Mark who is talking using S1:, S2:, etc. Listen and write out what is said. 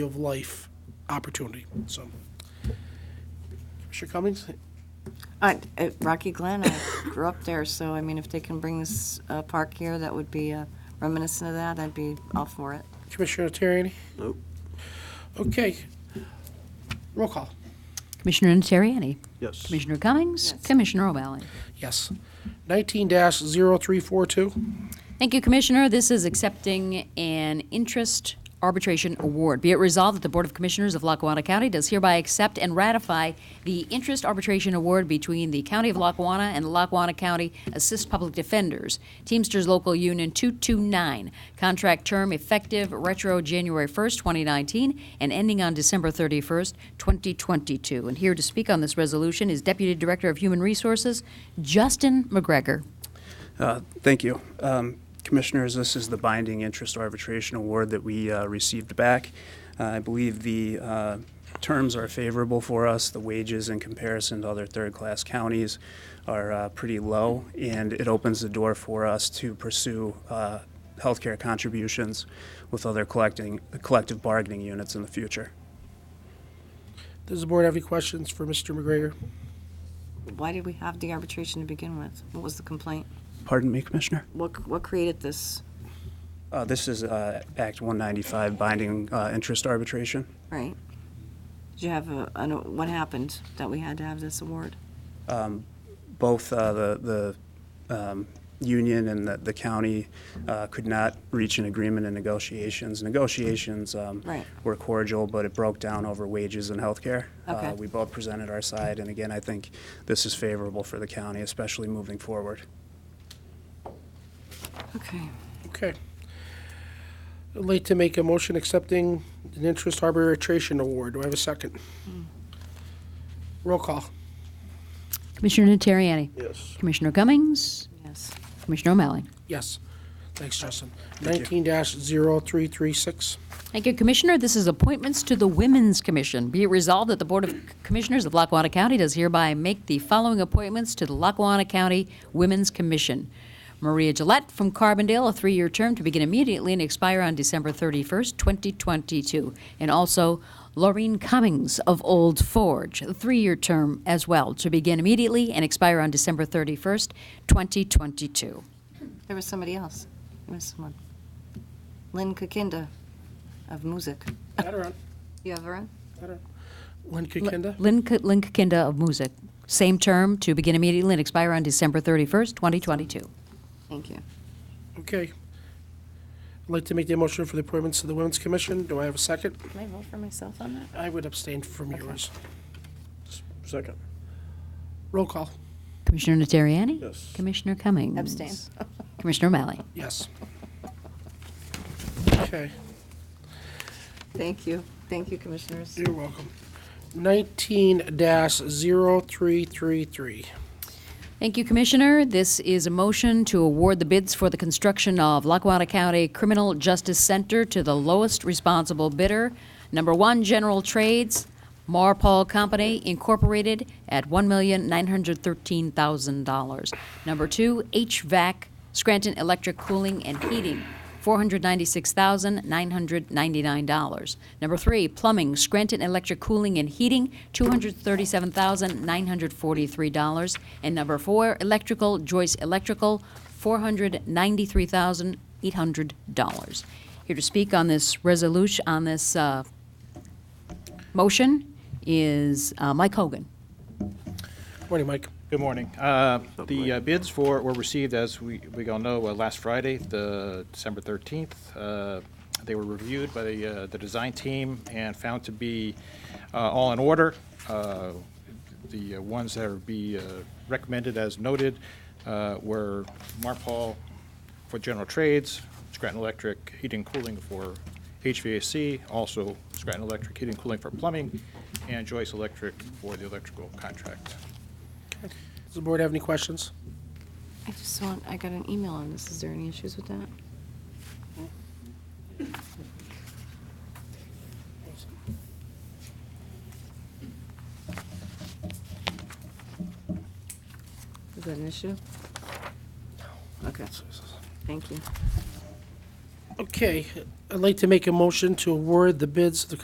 S1: of life opportunity, so. Commissioner Cummings,
S2: I- at Rocky Glen, I grew up there, so I mean, if they can bring this uh, park here, that would be uh, reminiscent of that, I'd be all for it.
S1: Commissioner Terriani?
S3: Nope.
S1: Okay. Roll call,
S4: Commissioner Niteriani.
S3: Yes.
S4: Commissioner Cummings. Commissioner O'Malley.
S1: yes. Nineteen dash zero three four two,
S4: Thank you, Commissioner. This is accepting an interest arbitration award. Be it resolved that the Board of Commissioners of Lackawanna County does hereby accept and ratify the interest arbitration award between the County of Lackawanna and the Lackawanna County Assist Public Defenders, Teamsters Local Union 229. Contract term effective retro January 1st, 2019, and ending on December 31st, 2022. And here to speak on this resolution is Deputy Director of Human Resources, Justin McGregor.
S5: Uh, Thank you. Um, Commissioners, this is the binding interest arbitration award that we uh, received back. Uh, I believe the uh, terms are favorable for us. The wages in comparison to other third-class counties are uh, pretty low, and it opens the door for us to pursue uh, healthcare contributions with other collecting, collective bargaining units in the future.
S1: does the board have any questions for Mr. McGregor?
S2: Why did we have the arbitration to begin with? What was the complaint?
S5: Pardon me, Commissioner?
S2: What, what created this,
S5: Uh, This is uh, Act 195, binding uh, interest arbitration.
S2: right? Did you have a, I know- what happened that we had to have this award?
S5: both uh, the, the um, union and the, the county uh, could not reach an agreement in negotiations. Negotiations um,
S2: Right.
S5: were cordial, but it broke down over wages and health care.
S2: Okay.
S5: We both presented our side, and again, I think this is favorable for the county, especially moving forward.
S2: Okay.
S1: Okay. I'd like to make a motion accepting an interest arbitration award. Do I have a second? Roll call,
S4: Commissioner Niteriani.
S3: Yes.
S4: Commissioner Cummings,
S2: Yes.
S4: Commissioner O'Malley.
S1: yes. Thanks, Justin.
S5: Thank
S1: Nineteen dash zero three three six,
S4: Thank you, Commissioner. This is appointments to the Women's Commission. Be it resolved that the Board of Commissioners of Lackawanna County does hereby make the following appointments to the Lackawanna County Women's Commission. Maria Gillette from Carbondale, a three-year term to begin immediately and expire on December 31st, 2022. And also Laureen Cummings of Old Forge, a three-year term as well, to begin immediately and expire on December 31st, 2022.
S2: There was somebody else. There was someone. Lynn Kakinda of Music.
S1: Adirond,
S2: You have her in?
S1: Lynn Kakinda?
S4: Lynn, K- Lynn Kinda of Music. Same term to begin immediately and expire on December 31st, 2022.
S2: Thank you.
S1: Okay. I'd like to make the motion for the appointments to the Women's Commission. Do I have a second?
S2: Can I vote for myself on that?
S1: I would abstain from yours.
S3: Second.
S1: Roll call,
S4: Commissioner Niteriani?
S3: Yes.
S4: Commissioner Cummings?
S2: Abstain.
S4: Commissioner O'Malley?
S1: yes. Okay,
S2: Thank you. Thank you, Commissioners.
S1: you're welcome. Nineteen dash zero three three three.
S4: Thank you, Commissioner. This is a motion to award the bids for the construction of Lackawanna County Criminal Justice Center to the lowest responsible bidder. Number one, General Trades, Marpol Company Incorporated at $1,913,000. Number two, HVAC, Scranton Electric Cooling and Heating, $496,999. Number three, plumbing, Scranton Electric Cooling and Heating, $237,943. And number four, electrical, Joyce Electrical, $493,800. Here to speak on this resolution, on this uh, motion is uh, Mike Hogan.
S1: Morning, Mike.
S6: Good morning. Uh, The uh, bids for, were received, as we, we all know, uh, last Friday, the December 13th. Uh, They were reviewed by the, uh, the design team and found to be uh, all in order. Uh, The uh, ones that would be uh, recommended as noted uh, were Marpol for general trades, Scranton Electric heating and cooling for HVAC, also Scranton Electric heating and cooling for plumbing, and Joyce Electric for the electrical contract.
S1: Does the board have any questions?
S2: I just want, I got an email on this. Is there any issues with that? Is that an issue? No. Okay. Thank you.
S1: Okay, I'd like to make a motion to award the bids to the